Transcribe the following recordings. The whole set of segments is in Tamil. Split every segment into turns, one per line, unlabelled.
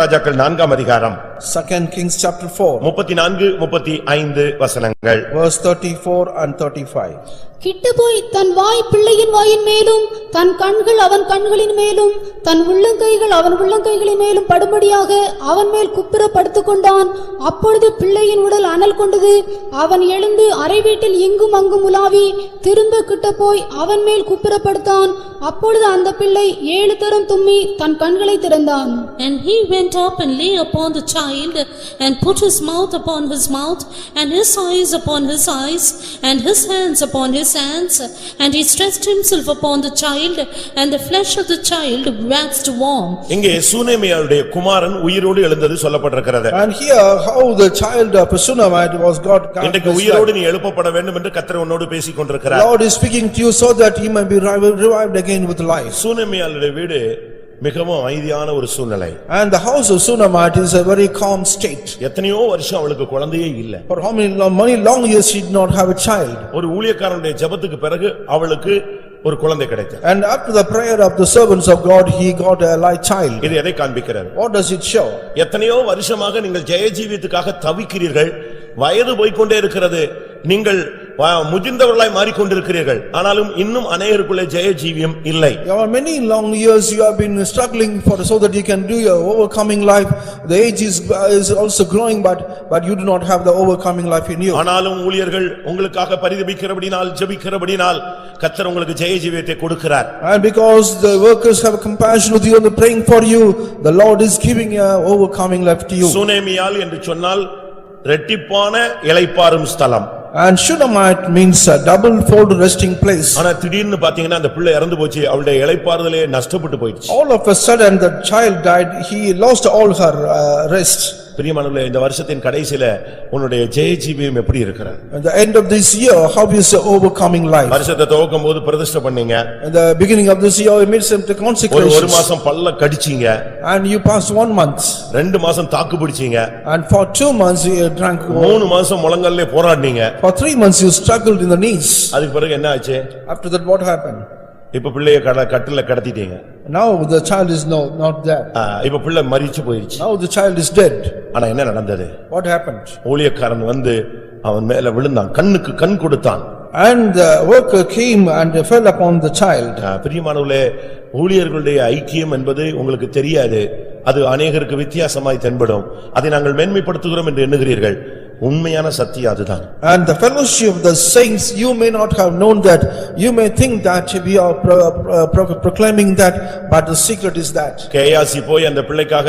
ராஜாக்கள் நான்காம் அதிகாரம்
Second Kings chapter four,
முப்பத்தி நான்கு முப்பத்தி ஐந்து வசனங்கள்
verse thirty-four and thirty-five.
கிட்டுபோய் தன் வாய் பிள்ளையின் வாயின் மேலும் தன் கண்கள் அவன் கண்களின் மேலும் தன் உள்ளங்கைகள் அவன் உள்ளங்கைகளின் மேலும் படும்படியாக அவன் மேல் குப்புற படுத்துக் கொண்டான் அப்பொழுது பிள்ளையின் உடல் அனல் கொண்டது அவன் எழுந்து அறை வீட்டில் இங்கும் அங்கும் உலாவி திரும்ப கிட்ட போய் அவன் மேல் குப்புற படுத்தான் அப்பொழுது அந்த பிள்ளை ஏழு தரம் தும்மி தன் கண்களை திறந்தான்
And he went up and lay upon the child, and put his mouth upon his mouth, and his eyes upon his eyes, and his hands upon his hands. And he stretched himself upon the child, and the flesh of the child waxed warm.
இங்கே சூனேமியாருடைய குமாரன் உயிரோடு எழுந்தது சொல்லப்பட்டிருக்கிறது
And here how the child of Sunamite was God.
இன்றைக்கு உயிரோடு நீ எழுப்பப்பட வேண்டும் என்று கத்தர் உன்னோடு பேசிக் கொண்டிருக்கிறார்
Lord is speaking to you so that he may be revi- revived again with life.
சூனேமியாருடைய வீடு மிகவும் அமைதியான ஒரு சூழ்நிலை
And the house of Sunamite is a very calm state.
எத்தனையோ வருஷம் அவளுக்கு குழந்தையே இல்ல
For how many, lo- many long years she did not have a child.
ஒரு ஊழியக்காரனுடைய ஜெபத்துக்கு பிறகு அவளுக்கு ஒரு குழந்தை கிடைத்தது
And after the prayer of the servants of God, he got a light child.
இது எதை காண்பிக்கிறது
What does it show?
எத்தனையோ வருஷமாக நீங்கள் ஜெயஜீவித்துக்காக தவிக்கிறீர்கள் வயது போய்க்கொண்டே இருக்கிறது நீங்கள் வ- முதிர்ந்தவர்களாய் மாறிக்கொண்டிருக்கிறீர்கள் ஆனாலும் இன்னும் அநேகருக்குள்ளே ஜெயஜீவியம் இல்லை
For many long years you have been struggling for, so that you can do your overcoming life. The age is, is also growing, but, but you do not have the overcoming life in you.
ஆனாலும் ஊழியர்கள் உங்களுக்காக பரிதபிக்கிறபடினால் ஜெபிக்கிறபடினால் கத்தர் உங்களுக்கு ஜெயஜீவியத்தை கொடுக்கிறார்
And because the workers have compassion with you and they're praying for you, the Lord is giving a overcoming life to you.
சுனேமியால் என்று சொன்னால் ரெட்டிப்பான இளைப்பாறும் ஸ்தலம்
And Shunammite means a double fold resting place.
ஆனா திடீர்னு பாத்தீங்கன்னா அந்த பிள்ளை இறந்து போச்சு அவளுடைய இளைப்பாறுதலே நஷ்டப்பட்டு போயிடுச்சு
All of a sudden, the child died, he lost all her uh, rest.
பிரியமானவர்களே இந்த வருஷத்தின் கடைசில உன்னுடைய ஜெயஜீவியம் எப்படி இருக்கிறது
At the end of this year, how is the overcoming life?
வருஷத்தை துவக்கும் போது பிரதிஷ்டை பண்ணீங்க
At the beginning of this year, you made some
ஒரு ஒரு
consecrations.
மாசம் பல்ல கடிச்சீங்க
And you passed one month.
ரெண்டு மாசம் தாக்கு பிடிச்சீங்க
And for two months, you drank.
மூணு மாசம் முழங்காலே போராடினீங்க
For three months, you struggled in the knees.
அதுக்கு பிறகு என்ன ஆச்சு
After that, what happened?
இப்ப பிள்ளைய கட- கட்டில கடத்திட்டீங்க
Now, the child is no, not there.
ஆ, இப்ப பிள்ளை மறிச்சு போயிடுச்சு
Now, the child is dead.
ஆனா என்ன நடந்தது
What happened?
ஊழியக்காரன் வந்து அவன் மேல விழுந்தான் கண்ணுக்கு கண் கொடுத்தான்
And the worker came and fell upon the child.
ஆ, பிரியமானவர்களே ஊழியர்களுடைய ஐக்கியம் என்பது உங்களுக்கு தெரியாது அது அநேகருக்கு வித்தியாசமாய் தென்படும் அதை நாங்கள் மேன்மைப்படுத்துகிறோம் என்று எண்ணுகிறீர்கள் உண்மையான சத்தியம் அதுதான்
And the fellowship of the saints, you may not have known that, you may think that we are pro- pro- proclaiming that, but the secret is that.
Gehazi போய் அந்த பிள்ளைக்காக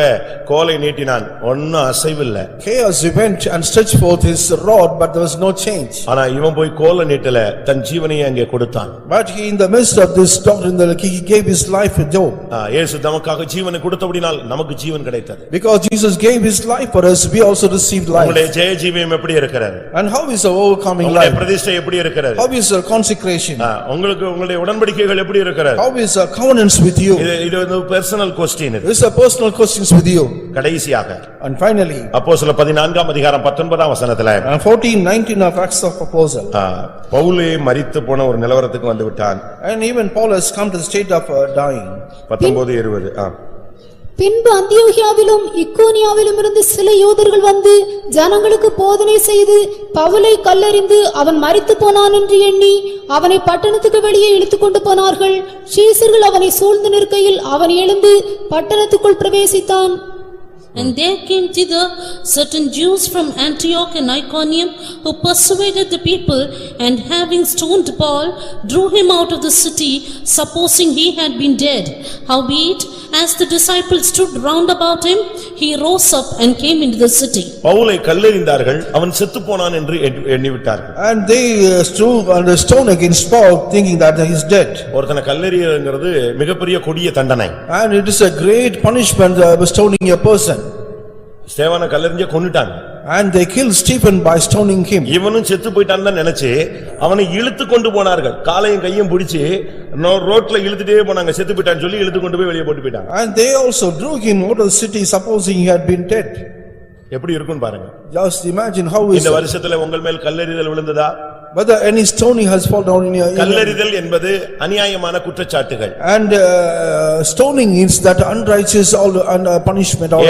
கோலை நீட்டினான் ஒன்னும் அசைவில்ல
Chaos went and stretched forth his rod, but there was no change.
ஆனா இவன் போய் கோலை நீட்டல தன் ஜீவனையே அங்கே கொடுத்தான்
But he, in the midst of this doctrine, the- he gave his life for Job.
ஆ, இயேசு தமக்காக ஜீவனை கொடுத்தபடினால் நமக்கு ஜீவன் கிடைத்தது
Because Jesus gave his life for us, we also received
உங்களுடைய
life.
ஜெய ஜீவியம் எப்படி இருக்கிறது
And how is our overcoming
உங்களுடைய
life?
பிரதிஷ்டை எப்படி இருக்கிறது
How is our consecration?
ஆ, உங்களுக்கு உங்களுடைய உடன்படிக்கைகள் எப்படி இருக்கிறது
How is our covenants with you?
இது இது வந்து பெர்சனல் கொஸ்டின் இது
These are personal questions with you.
கடைசியாக
And finally,
அப்போ சில பதினான்காம் அதிகாரம் பத்தொன்பதாம் வசனத்துல
uh, fourteen nineteen of Acts of Apostle.
ஆ, பவுலே மரித்து போன ஒரு நிலவரத்துக்கு வந்து விட்டான்
And even Paul has come to the state of uh, dying.
பத்தொன்பது இருபது ஆ.
பின்பு அந்தியோகியாவிலும் இக்கோனியாவிலும் இருந்து சில யூதர்கள் வந்து ஜனங்களுக்கு போதனை செய்து பவுலை கல்லறிந்து அவன் மரித்துப் போனான் என்று எண்ணி அவனை பட்டணத்துக்கு வெளியே இழுத்துக்கொண்டு போனார்கள் சீசர்கள் அவனை சூழ்ந்து நிற்கையில் அவன் எழுந்து பட்டணத்துக்குள் பிரவேசித்தான்
And there came thither certain Jews from Antioch and Iconium who persuaded the people and having stoned Paul, drew him out of the city, supposing he had been dead. Howbeit, as the disciples stood round about him, he rose up and came into the city.
பவுலை கல்லெறிந்தார்கள் அவன் செத்துப்போனான் என்று எண்ணி- எண்ணிவிட்டார்கள்
And they uh, threw on the stone against Paul thinking that he is dead.
ஒருத்தனை கல்லெறியங்கிறது மிகப்பெரிய கொடிய தண்டனை
And it is a great punishment uh, stoning a person.
ஸ்தேவானை கல்லெறிஞ்ச கொன்னுட்டாங்க
And they killed Stephen by stoning him.
இவனும் செத்து போயிட்டான்னு தான் நினைச்சு அவனை இழுத்து கொண்டு போனார்கள் காலையும் கையும் பிடிச்சு நோ- ரோட்ல இழுத்துட்டே போனாங்க செத்து போயிட்டான்னு சொல்லி இழுத்து கொண்டு போய் வெளியே போட்டு போயிட்டாங்க
And they also drew him out of the city supposing he had been dead.
எப்படி இருக்குன்னு பாருங்க
Just imagine how is,
இந்த வருஷத்துல உங்கள் மேல் கல்லெறிதல் விழுந்ததா
whether any stoning has fallen down in your. in your-
கல்லெறிதல் என்பது அநியாயமான குற்றச்சாட்டுகள்
And uh, stoning is that unrighteous all- and, uh, punishment. all-